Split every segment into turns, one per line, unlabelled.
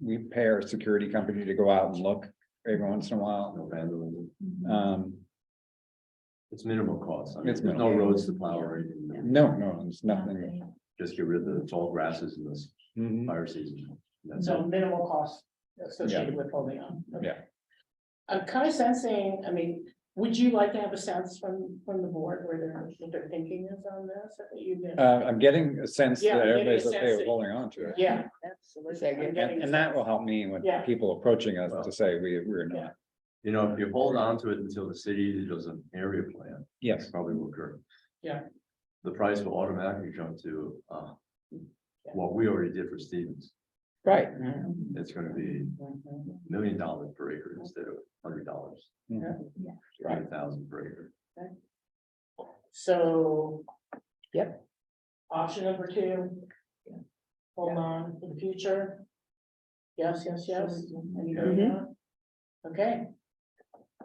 we pay our security company to go out and look every once in a while.
no vandalism.
Um,
It's minimal cost. I mean,
It's
there's no roads to plow or anything.
no, no, there's nothing.
Just get rid of the tall grasses in this
Mhm.
fire season. That's
So
it.
minimal cost associated with holding on. Okay.
Yeah.
I'm kind of sensing, I mean, would you like to have a sense from, from the board where they're, what they're thinking is on this? I think you've been-
Uh, I'm getting a sense
Yeah,
that
I'm getting a
everybody's
sense
okay with
that-
holding on to it.
Yeah.
Absolutely.
I'm
And,
getting
and that will help me when
Yeah.
people approaching us to say we, we're not,
You know, if you hold on to it until the city does an area plan,
yes,
it's probably will occur.
Yeah.
The price will automatically jump to, uh, what we already did for Stevens.
Right.
It's gonna be
Mhm.
million dollars per acre instead of hundred dollars.
Mhm.
Yeah.
Five thousand per acre.
So.
Yep.
Option number two.
Yeah.
Hold on for the future. Yes, yes, yes. Anybody
Mhm.
know? Okay.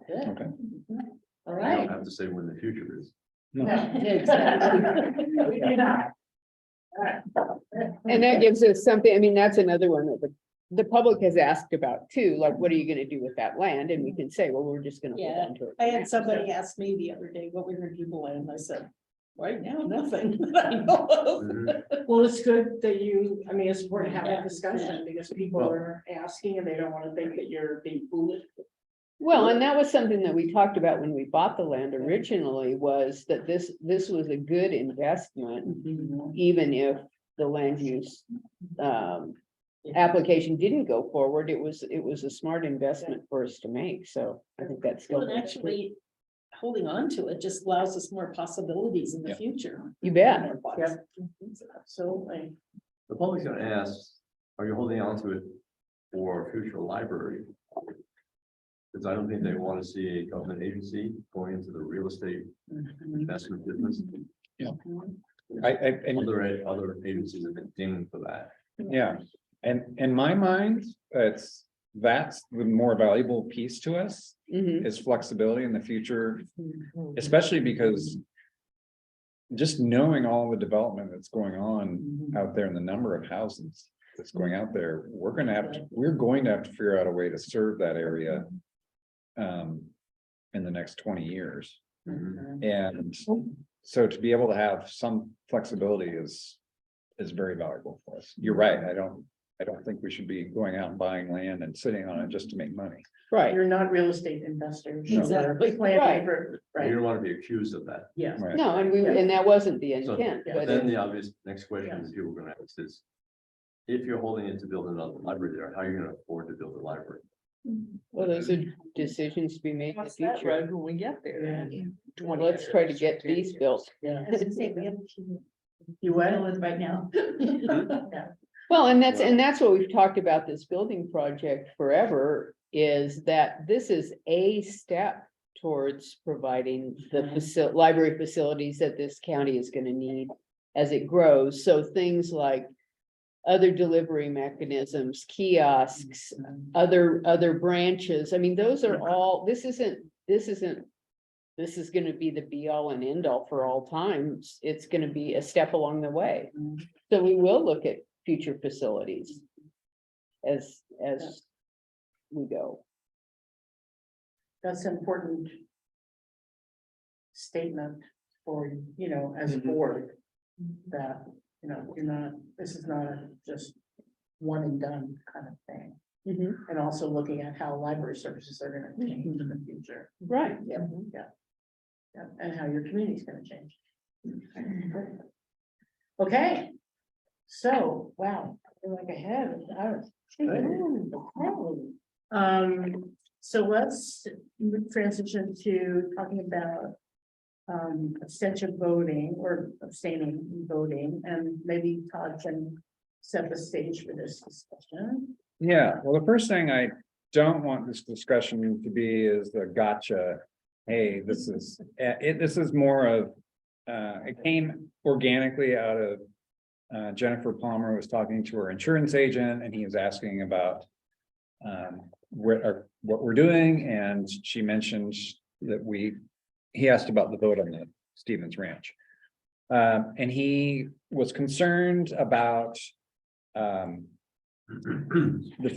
Good,
okay.
all
I don't
right.
have to say when the future is.
No.
We do not. All right.
And that gives us something, I mean, that's another one that the, the public has asked about too, like, what are you gonna do with that land? And we can say, well, we're just gonna hold
Yeah.
on to it.
I had somebody ask me the other day, what we were doing, and I said, right now, nothing. that I know of."
Mhm.
Well, it's good that you, I mean, it's worth having a
Yeah.
discussion because people
Well-
are asking and they don't want to think that you're being foolish.
Well, and that was something that we talked about when we bought the land originally, was that this, this was a good investment, even if the land use um, application didn't go forward, it was, it was a smart investment for us to make, so I think that's still.
Well, and actually, holding on to it just allows us more possibilities in
Yeah.
the future.
You bet.
More poss-
Yeah. Absolutely.
The public's gonna ask, are you holding on to it for future library? Because I don't think they want to see a government agency going into the real estate
mm-hmm.
investment business.
I, I, and,
Other, other agencies have been dinged for that.
yeah, and in my mind, it's, that's the more valuable piece to us.
Mhm.
Is flexibility in the future, especially because. Just knowing all the development that's going on out there and the number of houses that's going out there, we're gonna have, to we're going to have to figure out a way to serve that area. Um, in the next twenty years. And so to be able to have some flexibility is, is very valuable for us. You're right, I don't, I don't think we should be going out and buying land and sitting on it just to make money.
Right,
You're not real estate investors. or
Exactly.
planning for-
You
Right,
don't want to be accused of that.
yes.
Right.
no, and we, and that wasn't the intent,
yeah,
but
Then
it-
the obvious next question is people are gonna ask is. If you're holding it to build another library there, how are you gonna afford to build a library?
well, those are decisions to be made
Mm-hmm.
in the
Cross that
future.
road when we get there. in 20
Let's try to
years,
get
10
these
years.
built.
Yeah.
You
You will.
with right now.
Well, and that's, and that's what we've talked about this building project forever, is that this is a step towards providing the
Mm-hmm.
faci- library facilities that this county is gonna need as it grows, so things like other delivery
Mm-hmm.
mechanisms, kiosks, other, other branches, I mean, those are all, this isn't, this isn't this is gonna be the be all and end all for all times, it's gonna be a step along the way. So we will look at future facilities. As, as we go.
That's an important statement for, you know, as a board, that, you know, you're not, this is not a just one and done kind of thing.
Mm-hmm.
And also looking at how library services are gonna change in the future,
Right,
mhm. yeah, and how your community's gonna change. Okay, so, wow, we're like ahead, I was. Um, so let's transition to talking about. Um, abstention voting or abstaining from voting, and maybe Todd can set the stage for this discussion.
Yeah, well, the first thing I don't want this discussion to be is the gotcha. Hey, this is, eh, it, this is more of, uh, it came organically out of. Uh, Jennifer Palmer was talking to her insurance agent and he was asking about. Um, what are, what we're doing and she mentioned that we, he asked about the vote on the Stevens Ranch. Um, and he was concerned about, um,
Mhm.